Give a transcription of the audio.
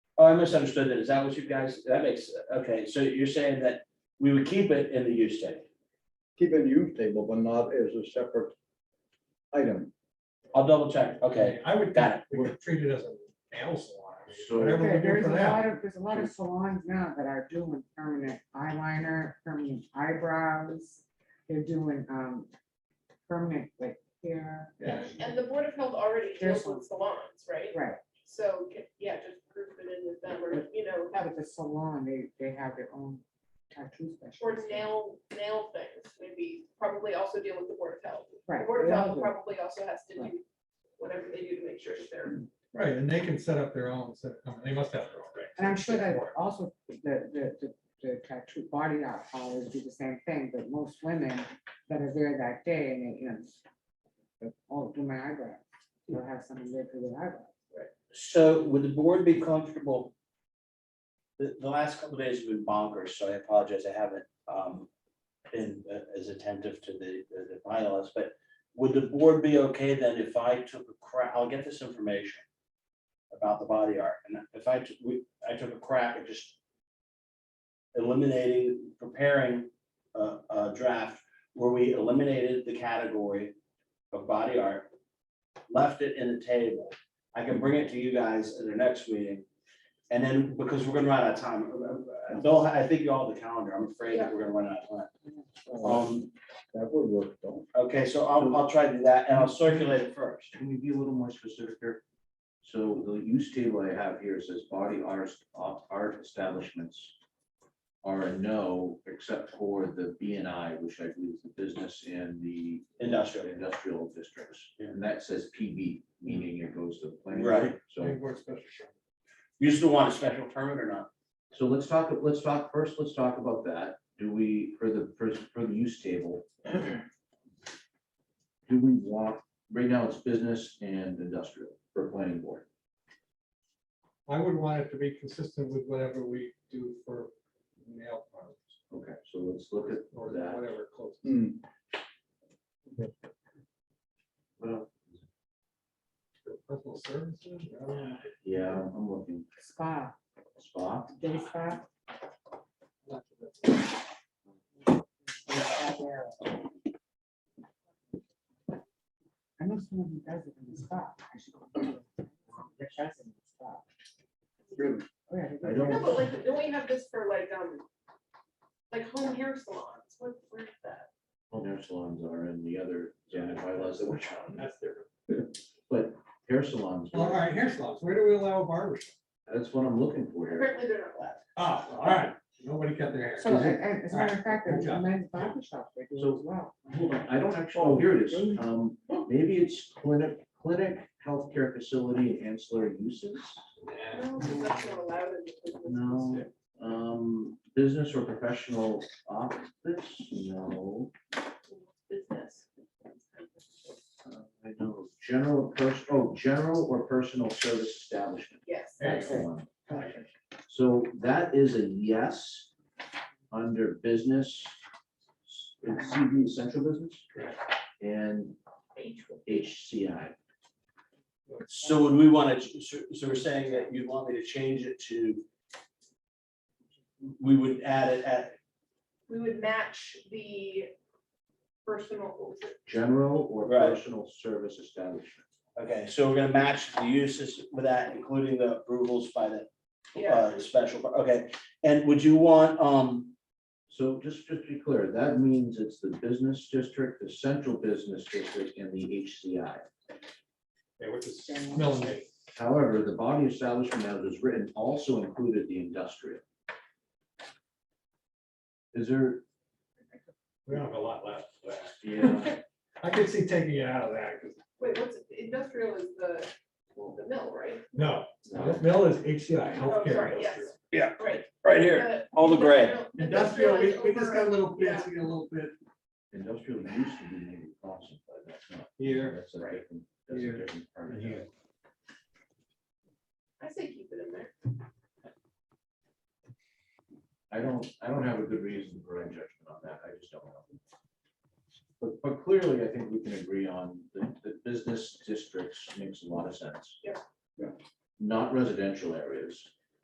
Oh, I misunderstood that. Is that what you guys, that makes, okay, so you're saying that we would keep it in the use table? keep it in use table, but not as a separate item. I'll double check, okay. I would, Got it. we could treat it as a nail salon, I mean, So- whatever we Okay, do There's for a lot that. of, there's a lot of salons now that are doing permanent eyeliner, permanent eyebrows. They're doing, um, permanent like hair, Yeah. And the Board of Health already deals with salons, right? right, So, yeah, just group it in with them or, you know, have, have the salon, they, they have their own tattoo or specialist. nail, nail things, maybe, probably also deal with the Board of Health. The Right. Board they of all Health do. probably also has to Right. do whatever they do to make sure that they're, Right, and they can set up their own, set- I mean, they must have their own. right? And I'm sure that also the, the, the- the tattoo body art always do the same thing, but most women that are there that day and they, you know, oh, do my eyebrow, you'll have someone there for your eyebrow. So would the board be comfortable? The, the last couple of days have been bonkers, so I apologize, I haven't, um, been uh, as attentive to the, the the bylaws, but would the board be okay then if I took a crack, I'll get this information about the body art, and if I, took- we- I took a crack at just eliminating, preparing a, a draft where we eliminated the category of body art, left it in the table, I can bring it to you guys at the next meeting. And then, because we're gonna run out of time, uh, Bill, I think you all have the calendar, I'm afraid that we're gonna run out of time. Uh, Um, That would work though. okay, so I'll, I'll try to do that, and I'll circulate it first. Can we be a little more specific here? So the use table I have here says body art, art establishments are a no, except for the B and I, which I believe is the business and the. Industrial. Industrial districts, and that says PB, meaning it goes to the planning. Right. So, Planning board special permit. You still want a special permit or not? so let's talk, let's talk, first, let's talk about that. Do we, for the, for, for the use table? Do we want, right now it's business and industrial for planning board. I would want it to be consistent with whatever we do for nail parlors Okay, so let's look at or that. whatever close. Hmm, Well, Personal services, I don't know. Yeah, I'm looking, Spa, spa, day spa. I know someone who does it in the spa. I should go to them. They're fascinated in the spa. really. Oh, yeah, they do I it. don't- no, but like, don't we have this for like, um, like home hair salons? What, where's that? well, hair Oh, salons are in the other, zoning bylaws that we're trying, That's different. but hair salons, All right, hair salons, where do we allow a barber? shop? that's what I'm looking for here. Apparently they're not allowed. Ah, all right, nobody cut their hair. So, and- and as a matter of fact, Good there's a job. men's barber shop, they do it So- as well. Hold on, I don't actually, oh, here it is, um, maybe it's clinic, clinic, healthcare facility, and ancillary uses. Yeah. No, because that's not allowed in the business No. Um, business or professional office, no, business. uh, I know, general person, oh, general or personal service establishment. Yes. There you That's the go. one. So that is a yes under business. It's CB central business Correct. and HCI. So would we want to, so so we're saying that you'd want me to change it to, we would add it at, We would match the personal, what was it? General or Right. personal service establishment. okay, so we're gonna match the uses with that, including the approvals by the yeah, uh, special, okay. And would you want, um, So just, just to be clear, that means it's the business district, the central business district and the HCI. They were just smelling it. However, the body establishment as is written also included the industrial. Is there? We don't have a lot left. but Yeah. I could see taking it out of that, 'cause- wait, what's, industrial is the, the mill, right? no, the mill is HCI, Oh, healthcare. sorry, yes. industrial. Yeah, Right. right here, The all the gray. Industrial, we, we just got a is over- little yeah. fancy, a little bit Industrial used to be maybe constant, but that's not. here. That's a different, that's Here. a different part of Here. it. I say keep it in there. I don't, I don't have a good reason for my judgment on that, I just don't know. But, but clearly, I think we can agree on the, the business districts makes a lot of sense. Yeah. Yeah. Not residential areas,